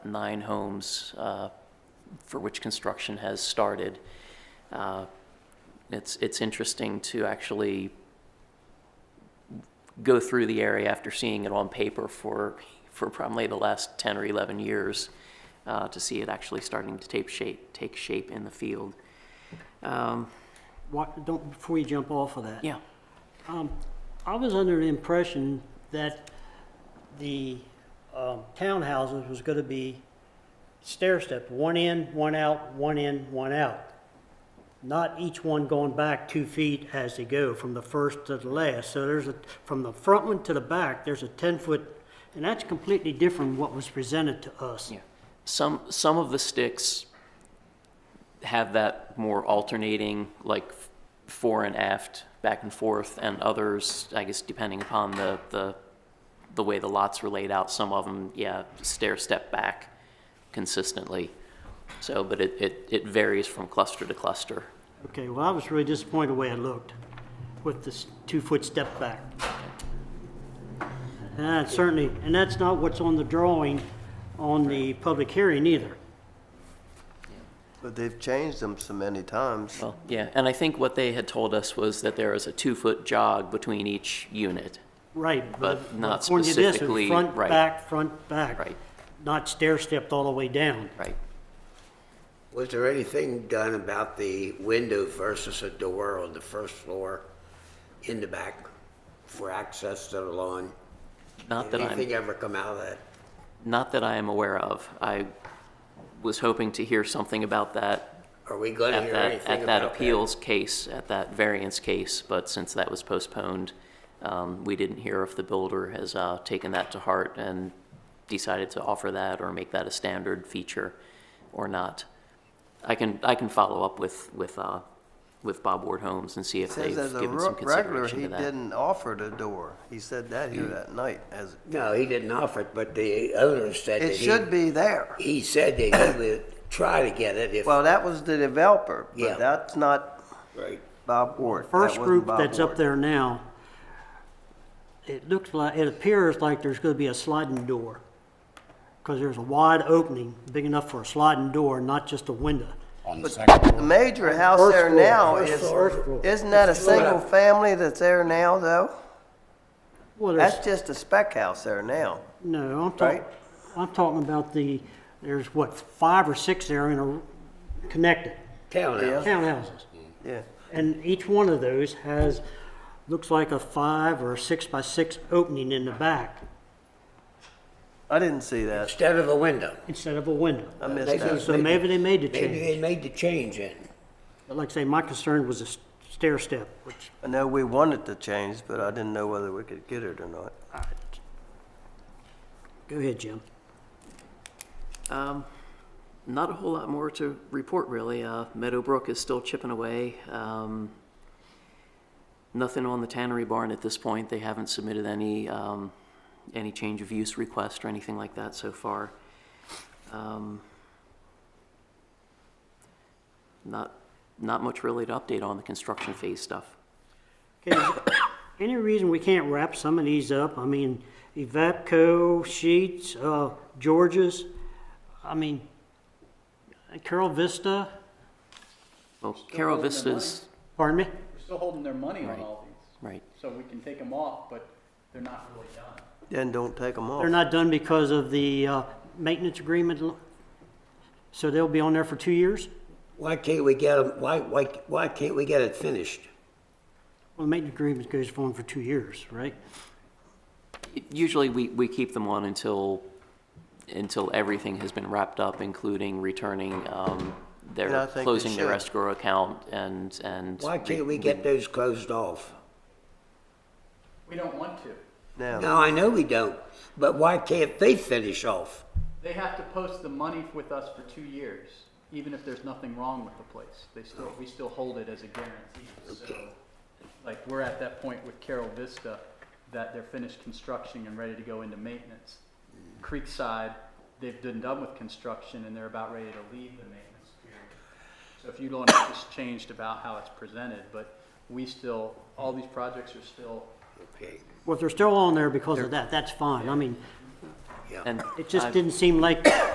nine homes uh, for which construction has started. Uh, It's, it's interesting to actually go through the area after seeing it on paper for, for probably the last 10 or 11 years, uh, to see it actually starting to take shape, take shape in the field. Um, What, don't, before you jump off of that. Yeah, I was under the impression that the um, townhouses was going to be stair-step, one in, one out, one in, one out. Not each one going back two feet as they go from the first to the last. So there's a, from the front one to the back, there's a 10-foot, and that's completely different from what was presented to us. yeah. Some, some of the sticks have that more alternating, like f- fore and aft, back and forth, and others, I guess, depending upon the, the, the way the lots were laid out, some of them, yeah, stair step back consistently. So, but it, it, it varies from cluster to cluster. Okay, well, I was really disappointed the way it looked with this two-foot step back. And that certainly, and that's not what's on the drawing on the public hearing either. But they've changed them so many times. Well, yeah, and I think what they had told us was that there is a two-foot jog between each unit. Right. But not according to this, it was specifically- Front, right. back, front, back. Right. Not stair-stepped all the way down. Right. Was there anything done about the window versus a door on the first floor in the back for access to the lawn? Not that I'm. Anything ever come out of that? Not that I am aware of. I was hoping to hear something about that Are we going to at hear that, anything at that about that? appeals case, at that variance case, but since that was postponed, um, we didn't hear if the builder has uh, taken that to heart and decided to offer that or make that a standard feature or not. I can, I can follow up with, with, uh, with Bob Ward Homes and see if they've Says as a given some re- regular, consideration he to that. Mm. didn't offer the door. He said that here that night as, No, he didn't offer it, but the owner said that it he. should be there. He said that he would try to get it if, Well, that was the developer, Yeah. but that's not right. Bob Ward. That First wasn't group Bob that's up Ward. there now, it looks like, it appears like there's gonna be a sliding door. Cause there's a wide opening, big enough for a sliding door, not just a window. on the second The floor. major house First there floor, now first is, floor, first floor. isn't that a single family that's there now though? Well, there's- That's just a spec house there now. No, I'm talking, Right? I'm talking about the, there's what, five or six there in a, connected, Townhouse. townhouses. Yeah. And each one of those has, looks like a five or six by six opening in the back I didn't see that. Instead of a window. instead of a window. I missed that. So maybe they made the Maybe change. they made the change in. But like I say, my concern was a s- stair step, which I know we wanted to change, but I didn't know whether we could get it or not. I, go ahead, Jim. Um, Not a whole lot more to report, really. Uh, Meadowbrook is still chipping away. Um, Nothing on the tannery barn at this point. They haven't submitted any, um, any change of use request or anything like that so far. Um, Not, not much really to update on the construction phase stuff. Okay, is there Any reason we can't wrap some of these up? I mean, Evapco, Sheets, uh, Georges, I mean, Carol Vista, Well, Carol holding their Vista's, pardon me? We're still holding their money on all these, right, so we can take them off, but they're not really done. Then don't take them off. They're not done because of the, uh, maintenance agreement, l- so they'll be on there for two years? Why can't we get 'em- why, why, why can't we get it finished? Well, the maintenance agreement goes on for two years, right? Usually, we, we keep them on until, until everything has been wrapped up, including returning, um, And I their, think they closing their should. escrow account and, and. Why can't we get those closed off? We don't want to. Now, No, I know we don't, but why can't they finish off? They have to post the money with us for two years, even if there's nothing wrong with the place. They still, we still hold it as a guarantee. So, like, we're at that point with Carol Vista, that they're finished construction and ready to go into maintenance. Creekside, they've been done with construction and they're about ready to leave the maintenance period. So if you don't, it's just changed about how it's presented, but we still, all these projects are still Okay, Well, if they're still on there because of that, that's fine. I mean, yeah. And it I've- just didn't seem like